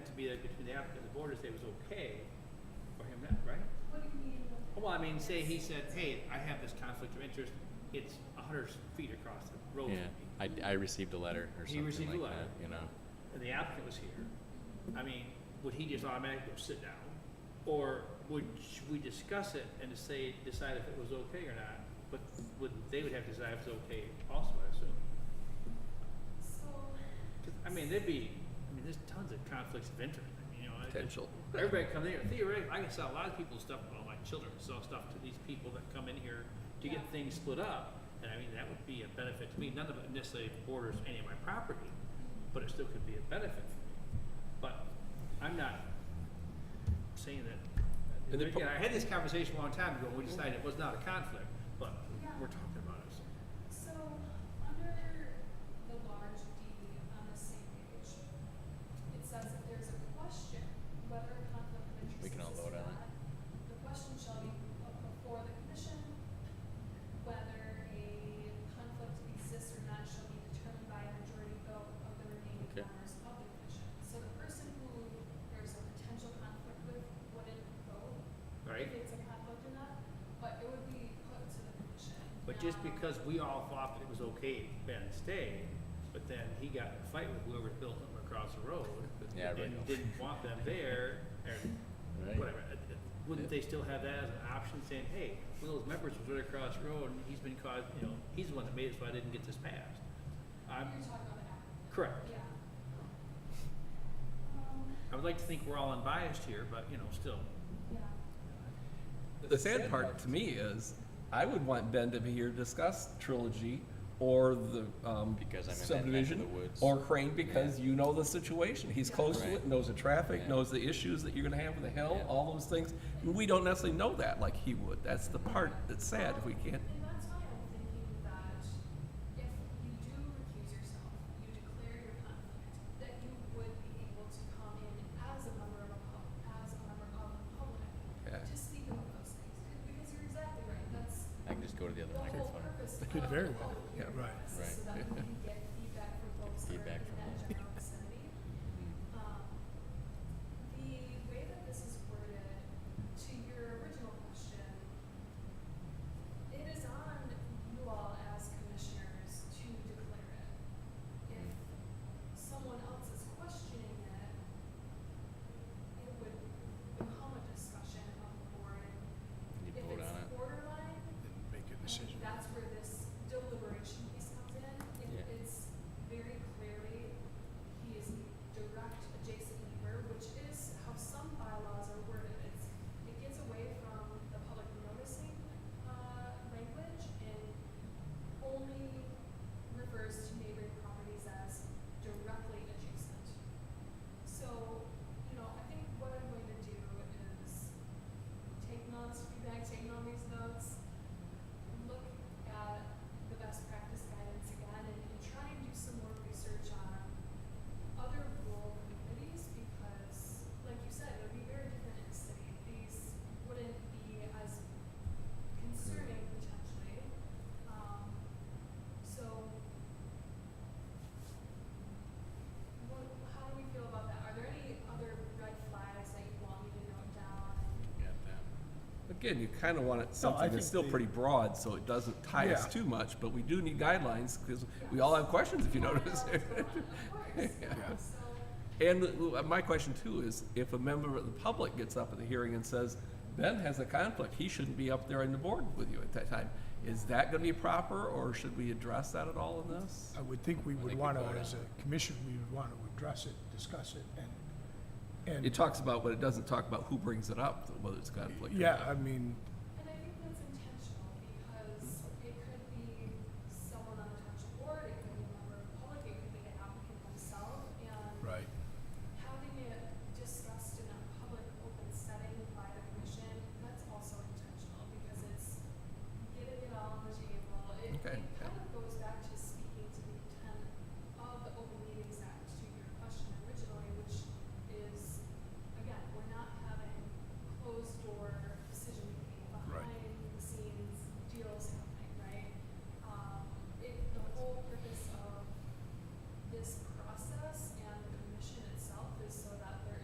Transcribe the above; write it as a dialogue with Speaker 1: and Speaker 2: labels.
Speaker 1: be like between the applicant and the board to say it was okay for him not, right?
Speaker 2: What do you mean?
Speaker 1: Well, I mean, say he said, hey, I have this conflict of interest, it's a hundred feet across the road
Speaker 3: Yeah,
Speaker 1: from me.
Speaker 3: I, I received a letter or
Speaker 1: He
Speaker 3: something
Speaker 1: received a
Speaker 3: like
Speaker 1: letter.
Speaker 3: that, you know.
Speaker 1: and the applicant was here, I mean, would he just automatically go sit down? Or would sh- we discuss it and to say, decide if it was okay or not? But would, they would have to decide if it's okay also, I assume.
Speaker 2: So,
Speaker 1: 'Cause, I mean, there'd be, I mean, there's tons of conflicts of interest, I mean, you know. I-
Speaker 4: Potential.
Speaker 1: Everybody come in here, theoretically, I can sell a lot of people's stuff, well, my children sell stuff to these people that come in here to get
Speaker 2: Yeah.
Speaker 1: things split up. And I mean, that would be a benefit to me, none of it necessarily borders any of my property, but it still could be a benefit for me. But I'm not saying that,
Speaker 4: And the
Speaker 1: again,
Speaker 4: pro-
Speaker 1: I had this conversation a long time ago, and we decided it was not a conflict, but we're talking about it. so.
Speaker 2: so under the large D on the same page, it says if there's a question whether a conflict of interest
Speaker 4: We can all
Speaker 2: exists
Speaker 4: vote
Speaker 2: or
Speaker 4: on it.
Speaker 2: not, the question shall be put before the commission. Whether a conflict exists or not shall be determined by a majority vote of the remaining
Speaker 3: Okay.
Speaker 2: members of the commission. So the person who there's a potential conflict with wouldn't vote
Speaker 1: Right?
Speaker 2: If it's a conflict or not, but it would be put to the commission.
Speaker 1: But just
Speaker 2: Now,
Speaker 1: because we all thought that it was okay, Ben stayed, but then he got in a fight with whoever built him across the road.
Speaker 3: Yeah, I
Speaker 1: And
Speaker 3: know.
Speaker 1: didn't want them there, and
Speaker 3: Right.
Speaker 1: whatever. It- it- Wouldn't they still have that as an option, saying, hey, one of those members was right across the road, and he's been caused, you know, he's the one that made it, so I didn't get this passed.
Speaker 2: You're
Speaker 1: I'm,
Speaker 2: talking about the applicant.
Speaker 1: correct.
Speaker 2: Yeah. Um,
Speaker 1: I would like to think we're all unbiased here, but, you know, still.
Speaker 2: yeah.
Speaker 4: The sad part to me is, I would want Ben to be here to discuss trilogy or the um,
Speaker 3: Because I'm in that neck of
Speaker 4: subdivision
Speaker 3: the woods.
Speaker 4: or Crane because you know the situation. He's
Speaker 2: Yeah.
Speaker 4: close to
Speaker 3: Right.
Speaker 4: it, knows the traffic,
Speaker 3: Yeah.
Speaker 4: knows the issues that you're going to have with the hill,
Speaker 3: Yeah.
Speaker 4: all those things. And we don't necessarily know that like he would. That's the part that's sad if we can't.
Speaker 2: And that's why I'm thinking that if you do recuse yourself, you declare your conflict, that you would be able to come in as a member of a pub, as a member of the public
Speaker 4: Yeah.
Speaker 2: to speak about those things, because you're exactly right, that's
Speaker 3: I can just go to the other
Speaker 2: the whole
Speaker 3: microphone.
Speaker 2: purpose of.
Speaker 5: Could very well,
Speaker 2: of
Speaker 4: yeah,
Speaker 2: your
Speaker 5: right.
Speaker 2: process,
Speaker 3: Right.
Speaker 2: So that we can get feedback from folks that are in
Speaker 3: Feedback from
Speaker 2: that
Speaker 3: folks.
Speaker 2: general vicinity.
Speaker 3: Mm-hmm.
Speaker 2: Um, The way that this is worded, to your original question, it is on you all as commissioners to declare it. If someone else is questioning it, it would become a discussion of the board.
Speaker 3: You
Speaker 2: If
Speaker 3: vote
Speaker 2: it's
Speaker 3: on it.
Speaker 2: borderline,
Speaker 5: and make a
Speaker 2: I
Speaker 5: decision.
Speaker 2: think that's where this deliberation piece comes in. If
Speaker 3: Yeah.
Speaker 2: it's very clearly, he is the direct adjacent neighbor, which is how some bylaws are worded. It's, it gets away from the public noticing, uh, language and only refers to neighboring properties as directly adjacent. So, you know, I think what I'm going to do is take notes, feedback, taking all these notes, look at the best practice guidance again and, and try and do some more research on other rural communities because, like you said, it would be very different in the city. These wouldn't be as concerning potentially. Um, so, what, how do we feel about that? Are there any other red flags that you want me to note down?
Speaker 4: Again, you kind of want it something
Speaker 5: think
Speaker 4: that's still
Speaker 5: the-
Speaker 4: pretty broad so it doesn't tie us
Speaker 5: Yeah.
Speaker 4: too much, but we do need guidelines because we all have questions if you
Speaker 2: Yeah,
Speaker 4: notice.
Speaker 2: Of course,
Speaker 4: Yeah.
Speaker 2: so.
Speaker 4: And uh, my question too is, if a member of the public gets up at the hearing and says, Ben has a conflict, he shouldn't be up there on the board with you at that time, is that gonna be proper, or should we address that at all in this?
Speaker 5: I would think we would
Speaker 3: think
Speaker 5: want
Speaker 3: we
Speaker 5: to,
Speaker 3: vote
Speaker 5: as a commission, we would want to address it, discuss it, and,
Speaker 4: It
Speaker 5: and,
Speaker 4: talks about, but it doesn't talk about who brings it up, whether it's conflict or
Speaker 5: yeah,
Speaker 4: not.
Speaker 5: I mean,
Speaker 2: Um,